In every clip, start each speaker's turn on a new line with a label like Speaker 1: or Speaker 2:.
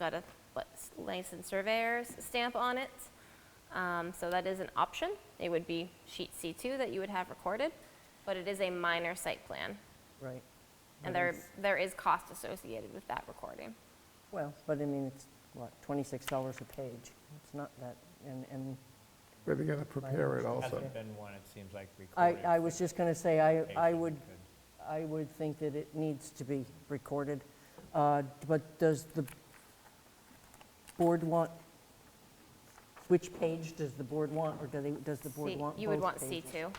Speaker 1: got a what, s- licensed surveyor's stamp on it. Um, So that is an option. It would be sheet C2 that you would have recorded, but it is a minor site plan.
Speaker 2: Right.
Speaker 1: And
Speaker 2: But
Speaker 1: there,
Speaker 2: it's-
Speaker 1: there is cost associated with that recording.
Speaker 2: Well, but I mean, it's, what, $26 a page? It's not that, and, and
Speaker 3: But they gotta prepare it also.
Speaker 4: Hasn't been one, it seems like,
Speaker 2: I,
Speaker 4: recorded.
Speaker 2: I was just going to say, I, I
Speaker 4: Patient
Speaker 2: would,
Speaker 4: could-
Speaker 2: I would think that it needs to be recorded. Uh, But does the board want, which page does the board want, or do they, does the board
Speaker 1: C-
Speaker 2: want both
Speaker 1: You would want
Speaker 2: pages?
Speaker 1: C2.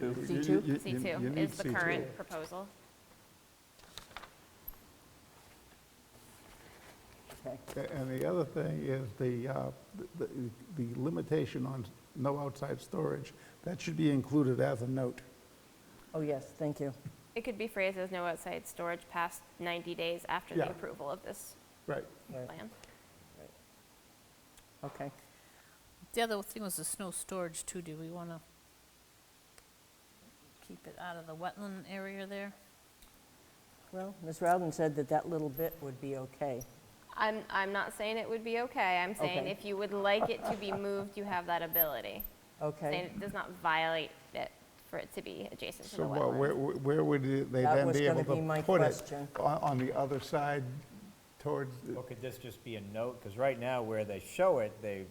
Speaker 3: You-
Speaker 2: C
Speaker 3: you-
Speaker 2: two?
Speaker 3: you- you- you
Speaker 1: C2
Speaker 3: need
Speaker 1: is the
Speaker 3: C2.
Speaker 1: current proposal.
Speaker 2: Okay.
Speaker 3: A- And the other thing is the, uh, the the limitation on no outside storage, that should be included as a note.
Speaker 2: Oh, yes, thank you.
Speaker 1: It could be phrased as no outside storage past 90 days after the
Speaker 3: Yeah.
Speaker 1: approval of this
Speaker 3: Right.
Speaker 2: Right,
Speaker 1: plan.
Speaker 2: Okay.
Speaker 5: The other thing was the snow storage too. Do we want to keep it out of the wetland area there?
Speaker 2: Well, Ms. Rowden said that that little bit would be okay.
Speaker 1: I'm, I'm not saying it would be okay. I'm saying
Speaker 2: Okay.
Speaker 1: if you would like it to be moved, you have that ability. Saying
Speaker 2: Okay.
Speaker 1: it does not violate it for it to be adjacent to the
Speaker 3: So what, where,
Speaker 1: wetlands.
Speaker 3: where would it- they
Speaker 2: That
Speaker 3: then
Speaker 2: was
Speaker 3: be
Speaker 2: gonna
Speaker 3: able
Speaker 2: be my
Speaker 3: to put it?
Speaker 2: question.
Speaker 3: On, on the other side towards, the-
Speaker 4: Or could this just be a note? Because right now, where they show it, they,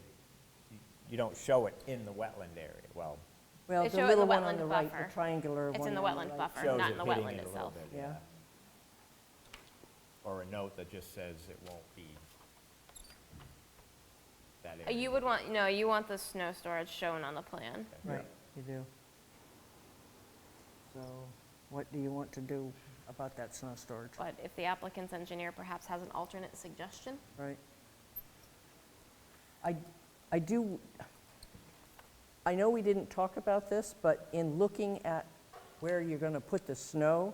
Speaker 4: you don't show it in the wetland area. Well,
Speaker 2: Well,
Speaker 1: They
Speaker 2: the
Speaker 1: show it in
Speaker 2: little
Speaker 1: the
Speaker 2: one on
Speaker 1: wetland
Speaker 2: the right,
Speaker 1: buffer.
Speaker 2: the triangular one.
Speaker 1: It's in the
Speaker 2: on
Speaker 1: wetland
Speaker 2: right.
Speaker 1: buffer,
Speaker 4: shows
Speaker 1: not
Speaker 4: it
Speaker 1: in the
Speaker 4: hitting
Speaker 1: wetland
Speaker 4: it a little
Speaker 1: itself.
Speaker 4: bit,
Speaker 2: Yeah.
Speaker 4: yeah. Or a note that just says it won't be that
Speaker 1: Uh,
Speaker 4: area.
Speaker 1: You would want, no, you want the snow storage shown on the plan.
Speaker 2: Right, you do. So what do you want to do about that snow storage,
Speaker 1: But if the applicant's engineer perhaps has an alternate suggestion,
Speaker 2: right? I, I do, I know we didn't talk about this, but in looking at where you're going to put the snow,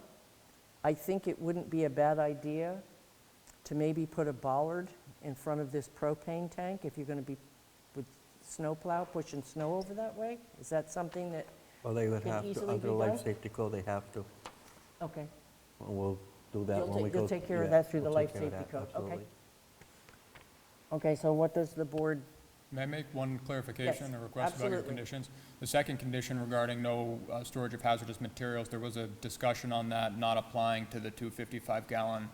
Speaker 2: I think it wouldn't be a bad idea to maybe put a bollard in front of this propane tank if you're going to be with snowplow, pushing snow over that way? Is that something that,
Speaker 6: Well, they would
Speaker 2: Can
Speaker 6: have to,
Speaker 2: easily
Speaker 6: under
Speaker 2: be
Speaker 6: the life
Speaker 2: done?
Speaker 6: safety code, they have to.
Speaker 2: okay.
Speaker 6: And We'll do that
Speaker 2: You'll
Speaker 6: when
Speaker 2: ta-
Speaker 6: we go.
Speaker 2: you'll take care of
Speaker 6: yeah,
Speaker 2: that through the
Speaker 6: we'll
Speaker 2: life
Speaker 6: take care of
Speaker 2: safety
Speaker 6: that,
Speaker 2: code. Okay.
Speaker 6: absolutely.
Speaker 2: Okay, so what does the board,
Speaker 7: May I make one clarification
Speaker 2: Yes,
Speaker 7: or request about your
Speaker 2: absolutely.
Speaker 7: conditions? The second condition regarding no uh, storage of hazardous materials, there was a discussion on that not applying to the two 55-gallon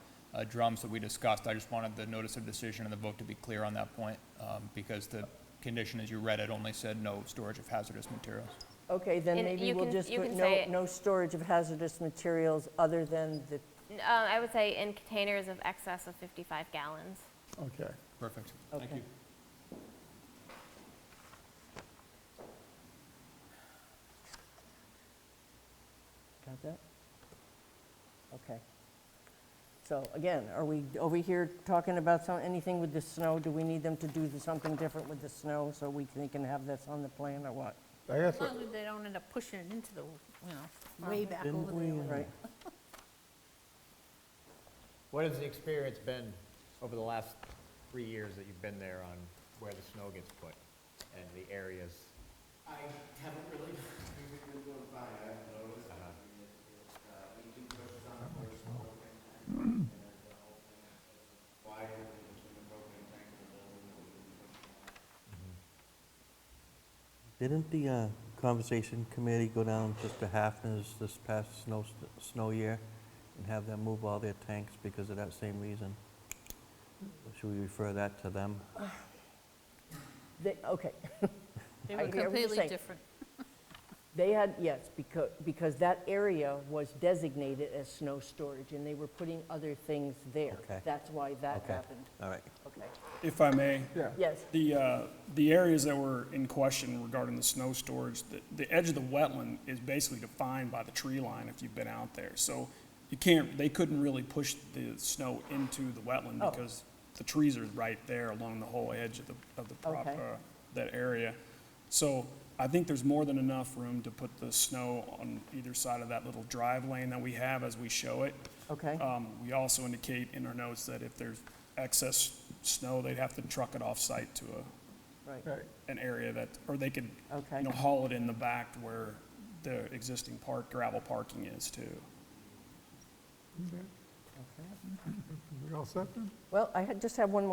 Speaker 7: drums that we discussed. I just wanted the notice of decision and the vote to be clear on that point, um, because the condition, as you read it, only said no storage of hazardous materials.
Speaker 2: okay, then
Speaker 1: And
Speaker 2: maybe
Speaker 1: you
Speaker 2: we'll
Speaker 1: can-
Speaker 2: just
Speaker 1: you
Speaker 2: put
Speaker 1: can
Speaker 2: no,
Speaker 1: say-
Speaker 2: no storage of hazardous materials other than the,
Speaker 1: N- uh, I would say in containers of excess of 55 gallons.
Speaker 3: okay.
Speaker 7: Perfect. Thank
Speaker 2: Okay.
Speaker 7: you.
Speaker 2: got that? Okay. So again, are we over here talking about some, anything with the snow? Do we need them to do the- something different with the snow so we can, they can have this on the plan or what?
Speaker 3: I guess,
Speaker 5: As long as they don't end up pushing it into the, you know, way back
Speaker 6: Didn't
Speaker 5: over there.
Speaker 6: we, uh,
Speaker 5: like-
Speaker 2: Right,
Speaker 4: What has the experience been over the last three years that you've been there on where the snow gets put and the areas?
Speaker 8: I haven't really, we've been doing fine, I haven't noticed. I mean, it- it, uh, We do push it on the first propane tank, and the whole thing is wider than between the propane tank and the building that we've been pushing on.
Speaker 6: Didn't the uh, conversation committee go down just to Hafner's this past snow, snow year and have them move all their tanks because of that same reason? Should we refer that to them?
Speaker 2: They, okay.
Speaker 5: They
Speaker 2: I
Speaker 5: were
Speaker 2: hear what you're saying.
Speaker 5: completely different.
Speaker 2: They had, yes, because, because that area was designated as snow storage, and they were putting other things there.
Speaker 6: Okay.
Speaker 2: That's why that
Speaker 6: Okay.
Speaker 2: happened.
Speaker 6: All right.
Speaker 2: Okay,
Speaker 9: If I may,
Speaker 3: Yeah.
Speaker 2: yes,
Speaker 9: the, uh, the areas that were in question regarding the snow storage, the, the edge of the wetland is basically defined by the tree line if you've been out there. So you can't, they couldn't really push the snow into the wetland
Speaker 2: Oh.
Speaker 9: because the trees are right there along the whole edge of the, of the prop,
Speaker 2: Okay.
Speaker 9: uh, that area. So I think there's more than enough room to put the snow on either side of that little drive lane that we have as we show it.
Speaker 2: okay,
Speaker 9: Um, We also indicate in our notes that if there's excess snow, they'd have to truck it off-site to a,
Speaker 2: right,
Speaker 3: Right.
Speaker 9: an area that, or they could,
Speaker 2: okay,
Speaker 9: you know, haul it in the back to where the existing park, gravel parking is too.
Speaker 2: okay.
Speaker 3: We all set then?
Speaker 2: Well, I had- just have one more